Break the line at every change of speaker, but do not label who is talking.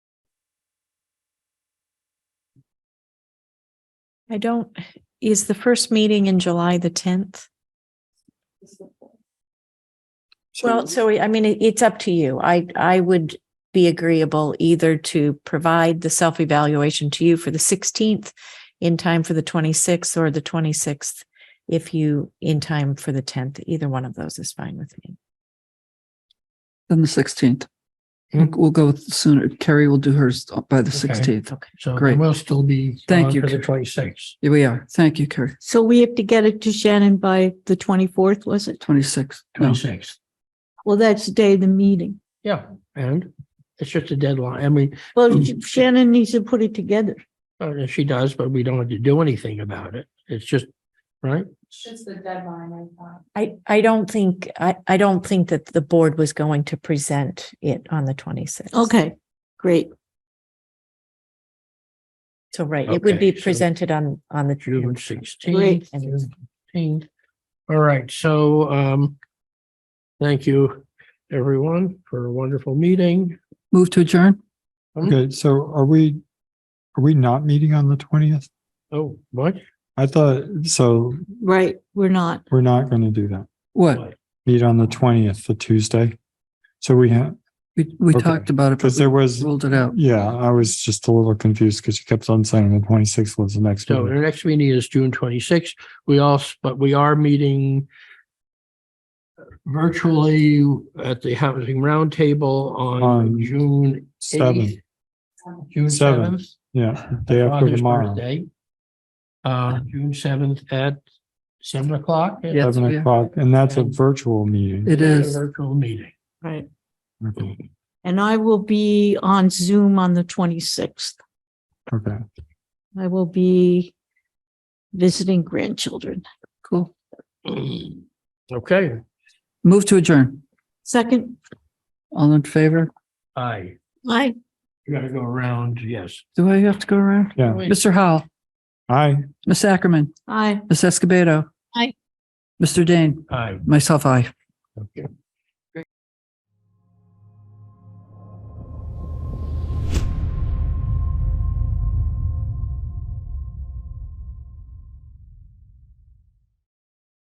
I don't, is the first meeting in July the tenth? Well, so I mean, it- it's up to you. I, I would be agreeable either to provide the self-evaluation to you for the sixteenth in time for the twenty-sixth or the twenty-sixth, if you, in time for the tenth, either one of those is fine with me.
Then the sixteenth. We'll we'll go with sooner. Carrie will do hers by the
Okay.
sixteenth.
Okay.
So
Great.
we'll still be.
Thank
on
you,
For the
Karen.
twenty-sixth.
Here we are. Thank you, Carrie.
So we have to get it to Shannon by the twenty-fourth, was it?
Twenty-six. No,
Twenty-sixth.
Well, that's the day of the meeting.
Yeah, and it's just a deadline. I mean,
Well, Shannon needs to put it together.
uh, she does, but we don't have to do anything about it. It's just, right?
Just the deadline, I thought.
I, I don't think, I, I don't think that the board was going to present it on the twenty-sixth.
Okay, great.
So, right, it would
Okay,
be
so-
presented on, on the.
June
16th.
sixteenth. All right, so um, thank you, everyone, for a wonderful meeting.
move to adjourn?
Hmm?
Okay, so are we, are we not meeting on the twentieth?
Oh, what?
I thought, so
Right, we're not.
we're not going to do that.
What?
Meet on the twentieth, the Tuesday. So we have,
We, we
Okay.
talked about it,
because
but
there
we
was,
ruled it out.
yeah, I was just a little confused because you kept on saying the twenty-sixth was the next
So
meeting.
the next meeting is June twenty-sixth. We also, but we are meeting virtually at the Housing Roundtable on
On
June
Seven,
eighth. June
Seven.
seventh.
yeah, day after
Father's
tomorrow,
birthday. Uh, June seventh at seven o'clock.
Yeah.
seven
Yeah.
o'clock, and that's a
And-
virtual meeting.
It is.
Virtual meeting.
Right.
Okay,
And I will be on Zoom on the twenty-sixth.
Okay,
I will be visiting grandchildren.
Cool.
Okay,
Move to adjourn.
Second,
All in favor?
aye.
I,
You gotta go around, yes.
Do I have to go around?
yeah.
Wait,
Mr. Howell,
Aye.
Miss Ackerman,
I.
Miss Escobedo.
Aye.
Mr. Dane,
Aye,
myself, I.
okay.